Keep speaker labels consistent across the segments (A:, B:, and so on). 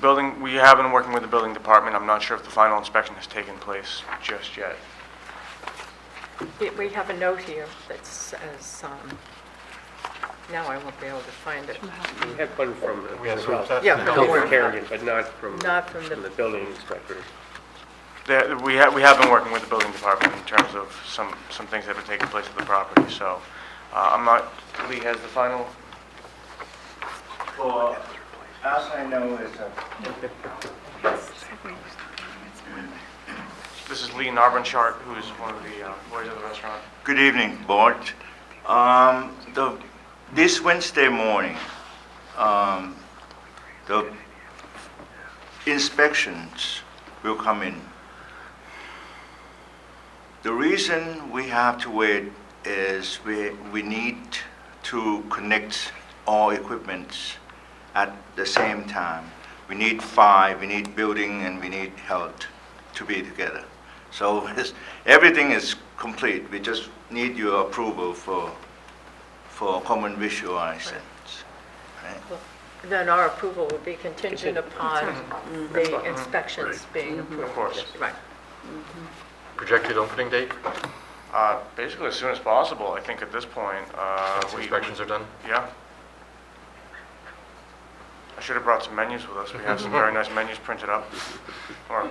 A: building, we have been working with the building department. I'm not sure if the final inspection has taken place just yet.
B: We- We have a note here that says, um, now I won't be able to find it,
C: We had one from the,
D: We had some
C: from
D: test-
B: Yeah, no.
C: Carrigan, but not from,
B: Not from the-
C: from the building inspector.
A: There- We have, we have been working with the building department in terms of some, some things that have taken place at the property, so uh, I'm not, Lee has the final?
E: Well, as I know is a
A: This is Lee Narbenchart, who is one of the uh, lawyers of the restaurant.
E: Good evening, board. Um, the, this Wednesday morning, um, the inspections will come in. The reason we have to wait is we, we need to connect all equipments at the same time. We need fire, we need building, and we need health to be together. So it's- everything is complete, we just need your approval for, for common visual license. right?
B: then our approval will be contingent upon the inspections being approved.
A: Of course.
B: Right.
D: Projected opening date,
A: Uh, Basically, as soon as possible, I think at this point. uh,
D: once
A: we-
D: inspections are done?
A: Yeah. I should have brought some menus with us. We have some very nice menus printed up. Or-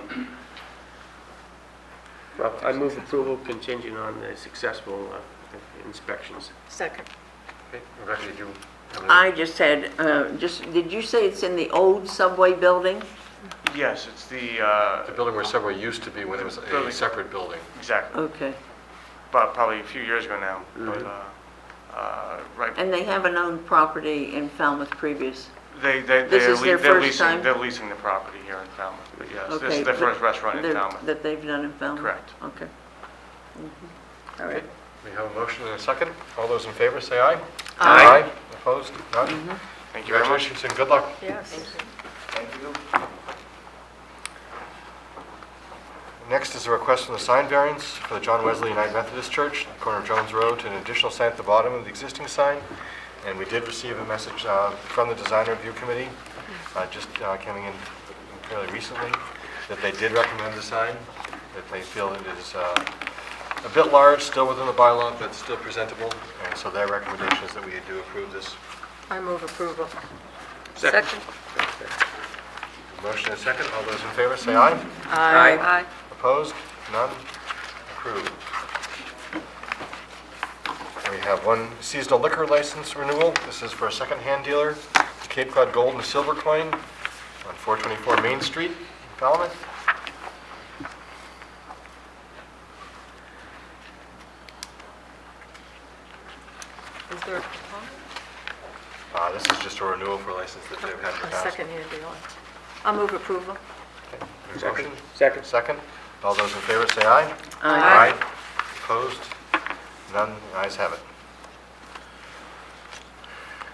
C: Well, I move approval contingent on the successful uh, inspections.
B: Second.
D: Okay, Rebecca, did you have a-
F: I just said, uh, just, did you say it's in the old subway building?
A: Yes, it's the, uh,
D: The building where Subway used to be when it was a
A: Building.
D: separate building.
A: exactly,
F: Okay.
A: but probably a few years ago now. But, uh, uh, right,
F: And they have an owned property in Falmouth previous?
A: they, they,
F: This
A: they're
F: is
A: lea-
F: their
A: they're
F: first
A: leasing,
F: time?
A: they're leasing the property here in Falmouth. But Yes, this
F: Okay,
A: is their
F: but
A: first restaurant in
F: they're-
A: Falmouth.
F: That they've done in Falmouth?
A: Correct.
F: Okay. Mhm. All
D: Okay,
F: right.
D: we have a motion and a second. All those in favor, say aye.
B: Aye.
D: Opposed? None?
A: Thank you very much.
D: Congratulations and good luck.
B: Yes.
E: Thank you.
D: Next is a request from the sign variance for the John Wesley United Methodist Church, corner of Jones Road, to an additional sign at the bottom of the existing sign. And we did receive a message uh, from the Design Review Committee, uh, just uh, coming in fairly recently, that they did recommend the sign, that they feel it is uh, a bit large, still within the bylaw, but still presentable. And so their recommendation is that we do approve this.
B: I move approval.
F: Second.
D: Motion is second. All those in favor, say aye.
B: Aye.
D: Opposed? None? Approved. We have one seasonal liquor license renewal. This is for a secondhand dealer, Cape Cod Gold and Silver Coin, on 424 Main Street, in Falmouth.
B: Is there a proponent?
D: Uh, This is just a renewal for a license that they've had in the
B: A
D: past.
B: second-hand deal. I move approval.
D: Motion?
C: Second.
D: Second. All those in favor say aye.
B: Aye.
D: Opposed? None, The ayes have it.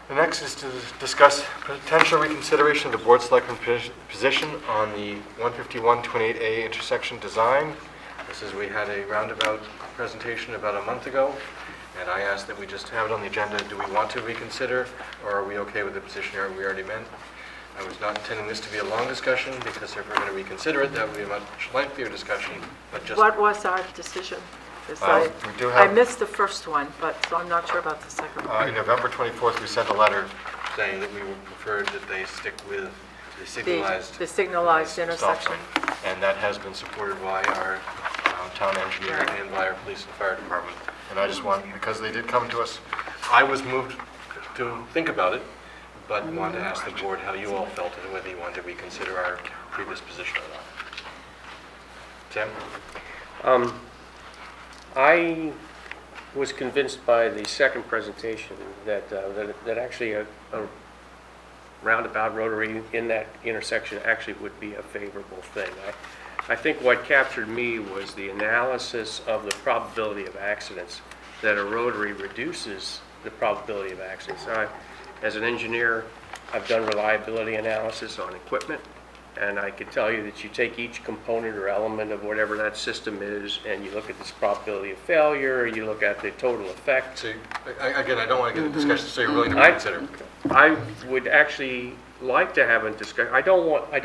D: The next is to discuss potential reconsideration of the board selectman posi- position on the 151-28A intersection design. This is, we had a roundabout presentation about a month ago, and I asked that we just have it on the agenda. Do we want to reconsider, or are we okay with the position we already meant? I was not intending this to be a long discussion, because if we're going to reconsider it, that would be a much lengthier discussion, but just...
B: What was our decision? 'Cause
D: Uh,
B: I-
D: we do
B: I
D: have-
B: missed the first one, but, so I'm not sure about the second one.
D: Uh, In November 24th, we sent a letter saying that we would prefer that they stick with the signalized...
B: the signalized
D: stop
B: intersection.
D: sign. And that has been supported by our um, town engineer
B: Right.
D: and by our police and fire department. And I just want, because they did come to us, I was moved to think about it, but wanted to ask the board how you all felt and whether you wanted to reconsider our previous position or not. Tim?
C: Um, I was convinced by the second presentation that, uh, that that actually a a roundabout rotary in that intersection actually would be a favorable thing. I I think what captured me was the analysis of the probability of accidents, that a rotary reduces the probability of accidents. I- As an engineer, I've done reliability analysis on equipment, and I could tell you that you take each component or element of whatever that system is, and you look at this probability of failure, you look at the total effect,
D: So, again, I don't want to get into discussion, so you're willing to
C: I-
D: reconsider?
C: I would actually like to have a discussion, I don't want, I